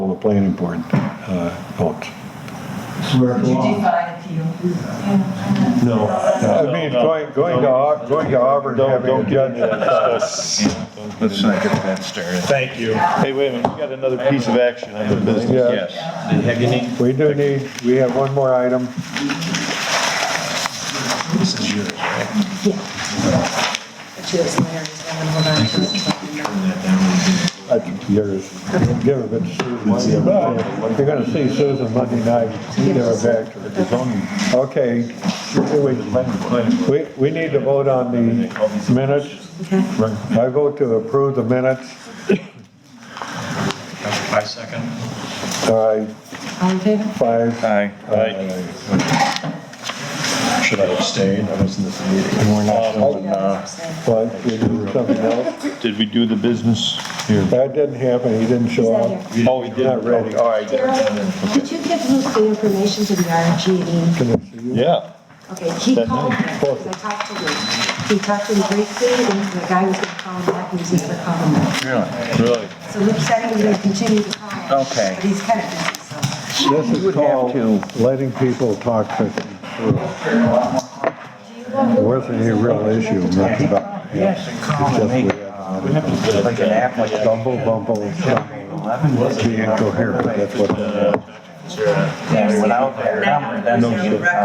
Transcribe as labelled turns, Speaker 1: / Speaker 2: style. Speaker 1: planning board uh, votes.
Speaker 2: Where it
Speaker 3: Would you
Speaker 2: belongs.
Speaker 3: define appeal?
Speaker 2: No,
Speaker 1: I
Speaker 2: no,
Speaker 1: mean,
Speaker 4: no.
Speaker 1: going, going to, Au- going to Auburn,
Speaker 4: Don't,
Speaker 1: having
Speaker 4: don't
Speaker 1: a
Speaker 4: get
Speaker 1: judge.
Speaker 4: into that stuff. Yeah,
Speaker 5: Let's
Speaker 4: don't get into-
Speaker 5: not get that started.
Speaker 2: thank you.
Speaker 4: Hey, wait a minute, we got another piece of action on the business.
Speaker 1: Yeah,
Speaker 5: Yes.
Speaker 1: we do need, we have one more item.
Speaker 3: Cheers, Larry's gonna hold on to it.
Speaker 1: That's yours. Give it to Susan. Well, You're gonna see Susan Monday night. You give it back to her. Okay. We, we need to vote on the minutes. I vote to approve the minutes.
Speaker 5: I second.
Speaker 1: All right,
Speaker 3: All in favor?
Speaker 1: five. Uh,
Speaker 5: Aye.
Speaker 4: Right.
Speaker 5: Should I abstain? I was in the meeting. We're not doing, uh,
Speaker 1: But we do something else.
Speaker 4: Did we do the business? Here.
Speaker 1: That didn't happen. He didn't show up.
Speaker 4: Oh, we did.
Speaker 1: Not ready.
Speaker 4: All right.
Speaker 6: Daryl, did you give Luke the information to the RGD?
Speaker 1: Can I see you?
Speaker 4: Yeah.
Speaker 6: Okay, he called me, because I talked to Luke. He talked to him briefly, and the guy was gonna call him back, he was just gonna call him back.
Speaker 5: really?
Speaker 4: Really?
Speaker 6: So Luke said he was gonna continue to call him.
Speaker 5: Okay.
Speaker 6: But he's kind of busy, so.
Speaker 1: This is called letting people talk to It wasn't any real issue, much about,
Speaker 7: Yes, and Colin, make uh, like an app like
Speaker 1: bumble bumble, stuff.
Speaker 7: eleven was
Speaker 1: being coherent, that's what.
Speaker 7: Yeah, without their number, then you.